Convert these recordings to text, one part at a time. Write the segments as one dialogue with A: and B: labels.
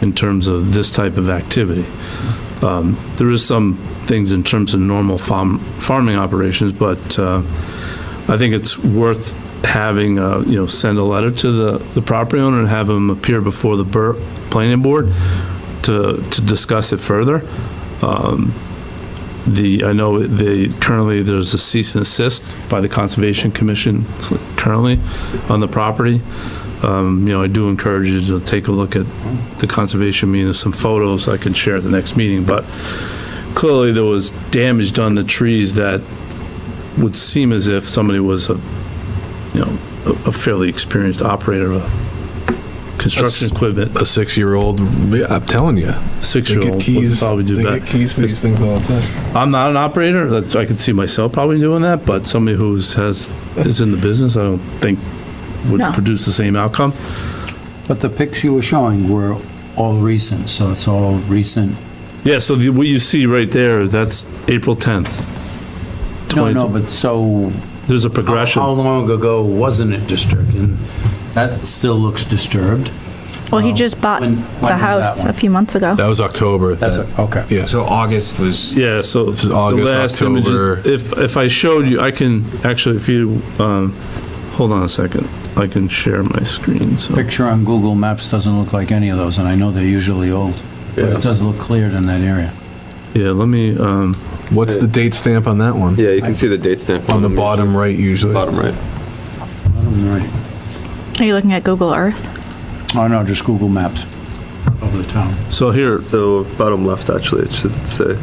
A: in terms of this type of activity. Um, There is some things in terms of normal farm, farming operations, but uh, I think it's worth having, uh, you know, send a letter to the, the property owner and have him appear before the bur- planning board to, to discuss it further. Um, The, I know they, currently, there's a cease and assist by the Conservation Commission currently on the property. Um, You know, I do encourage you to take a look at the conservation meeting, there's some photos I can share at the next meeting, but clearly there was damage done to trees that would seem as if somebody was a, you know, a- a fairly experienced operator of construction
B: That's-
A: equipment,
B: A six-year-old, yeah, I'm telling you, they
A: six-year-old
B: get
A: would
B: keys.
A: probably do
B: they
A: that.
B: get keys to these things all the time.
A: I'm not an operator, that's, I could see myself probably doing that, but somebody who's, has, is in the business, I don't think would
C: No.
A: produce the same outcome.
D: But the pics you were showing were all recent, so it's all recent.
A: Yeah, so the, what you see right there, that's April 10th.
D: No, no,
A: 20
D: but so
A: There's a
D: how-
A: progression.
D: how long ago wasn't it disturbed? And that still looks disturbed.
C: Well, he just bought
D: When- when
C: the
D: was that
C: house
D: one?
C: a few months ago.
B: That was October.
D: That's,
B: that-
D: a- Uh, okay.
B: Yeah,
E: So August was,
A: Yeah, so.
B: is August,
A: the last image is-
B: October.
A: If, if I showed you, I can, actually, if you, um, hold on a second, I can share my screen, so.
D: Picture on Google Maps doesn't look like any of those, and I know they're usually old. But
F: Yeah.
D: it does look cleared in that area.
A: Yeah, let me, um,
B: what's the date stamp on that one?
F: Yeah, you can see the date stamp.
B: On the
F: them
B: bottom right usually.
F: usually. Bottom right.
C: Are you looking at Google Earth?
D: Oh, no, just Google Maps of the town.
A: so here,
F: So bottom left, actually, it should say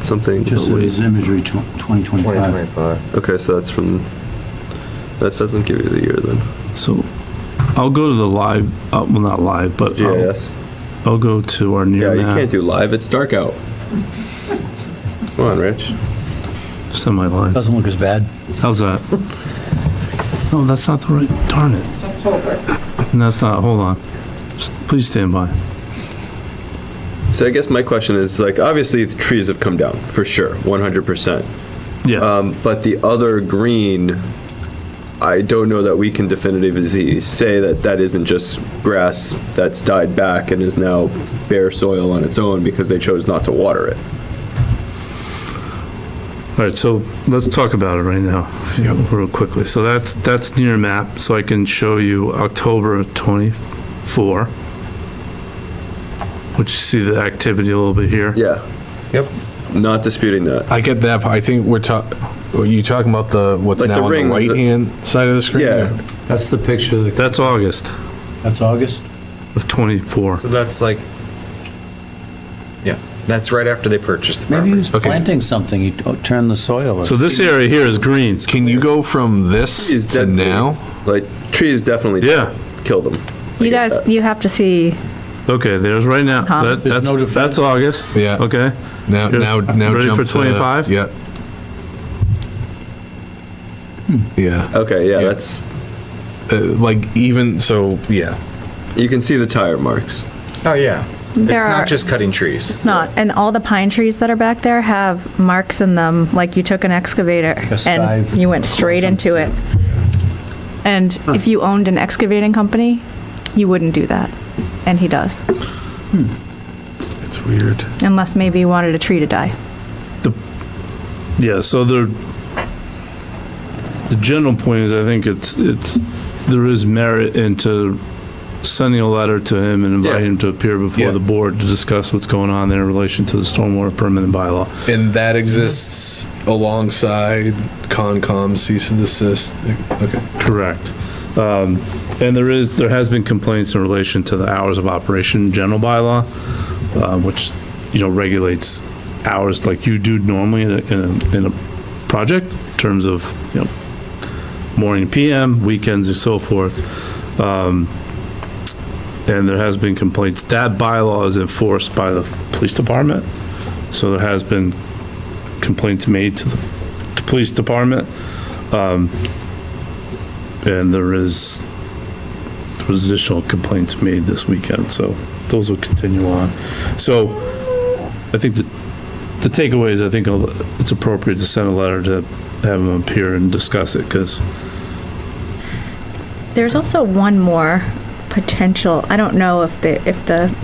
F: something.
D: Just
F: oh, wait.
D: his imagery, tw- 2025.
F: Okay, so that's from, that doesn't give you the year then.
A: so, I'll go to the live, uh, well, not live, but um, I'll,
F: GIS.
B: Oh.
A: I'll go to our
F: Yeah,
A: near
F: you
A: map,
F: can't do live. It's dark out. Come on, Rich.
A: semi-live.
D: Doesn't look as bad.
A: How's that? No, that's not the right, darn it. And that's not, hold on. S- Please stand by.
F: So I guess my question is like, obviously the trees have come down for sure, 100%.
A: Yeah,
F: Um, but the other green, I don't know that we can definitively say that that isn't just grass that's died back and is now bare soil on its own because they chose not to water it.
A: all right, so let's talk about it right now, if you- real quickly. So that's, that's near map, so I can show you October 24, which you see the activity a little bit here.
F: Yeah.
E: Yep.
F: Not disputing that.
B: I get that. part. I think we're talking. Are you talking about the what's
F: Like the
B: now on
F: ring,
B: the
F: the-
B: right hand side of the screen?
F: Yeah.
D: That's the picture, that-
A: That's August
D: that's August?
A: of 24.
E: so that's like, yeah, that's right after they purchased the
D: Maybe he
E: property.
D: was
B: Okay.
D: planting something, he t- turned the soil. or
A: So this area here is green.
B: Can you go from
F: Trees
B: this to
F: definitely-
B: now?
F: Like, trees definitely
A: Yeah.
F: killed them.
C: You guys, you have to see,
A: Okay, there's right now,
C: Huh?
A: that,
D: There's
A: that's,
D: no defense.
A: that's August.
B: Yeah.
A: Okay,
B: Now,
A: Here's-
B: now, now.
A: ready
B: jump
A: for
B: to-
A: 25?
B: Yeah. Yeah,
F: Okay, yeah,
B: Yeah.
F: that's,
B: uh, like even so, yeah.
F: you can see the tire marks.
E: Oh, yeah.
C: There
E: It's
C: are-
E: not just cutting trees.
C: it's not, and all the pine trees that are back there have marks in them, like you took an excavator and
D: scythe
C: you went straight into it. And if you owned an excavating company, you wouldn't do that, and he does,
B: It's weird.
C: unless maybe he wanted a tree to die.
A: yeah, so the, the general point is, I think it's, it's, there is merit into sending a letter to him and inviting
F: Yeah.
A: him to appear
B: Yeah.
A: before the board to discuss what's going on there in relation to the stormwater permanent bylaw.
B: And that exists alongside Concom cease and desist. Okay.
A: Correct. Um, And there is, there has been complaints in relation to the hours of operation general bylaw, uh, which, you know, regulates hours like you do normally in a, in a, in a project, in terms of, you know, morning, PM, weekends and so forth. Um, And there has been complaints. That bylaw is enforced by the police department. So there has been complaints made to the, to police department. And there is, there was additional complaints made this weekend, so those will continue on. So I think the, the takeaway is I think it's appropriate to send a letter to have them appear and discuss it, because,
C: There's also one more potential, I don't know if the, if the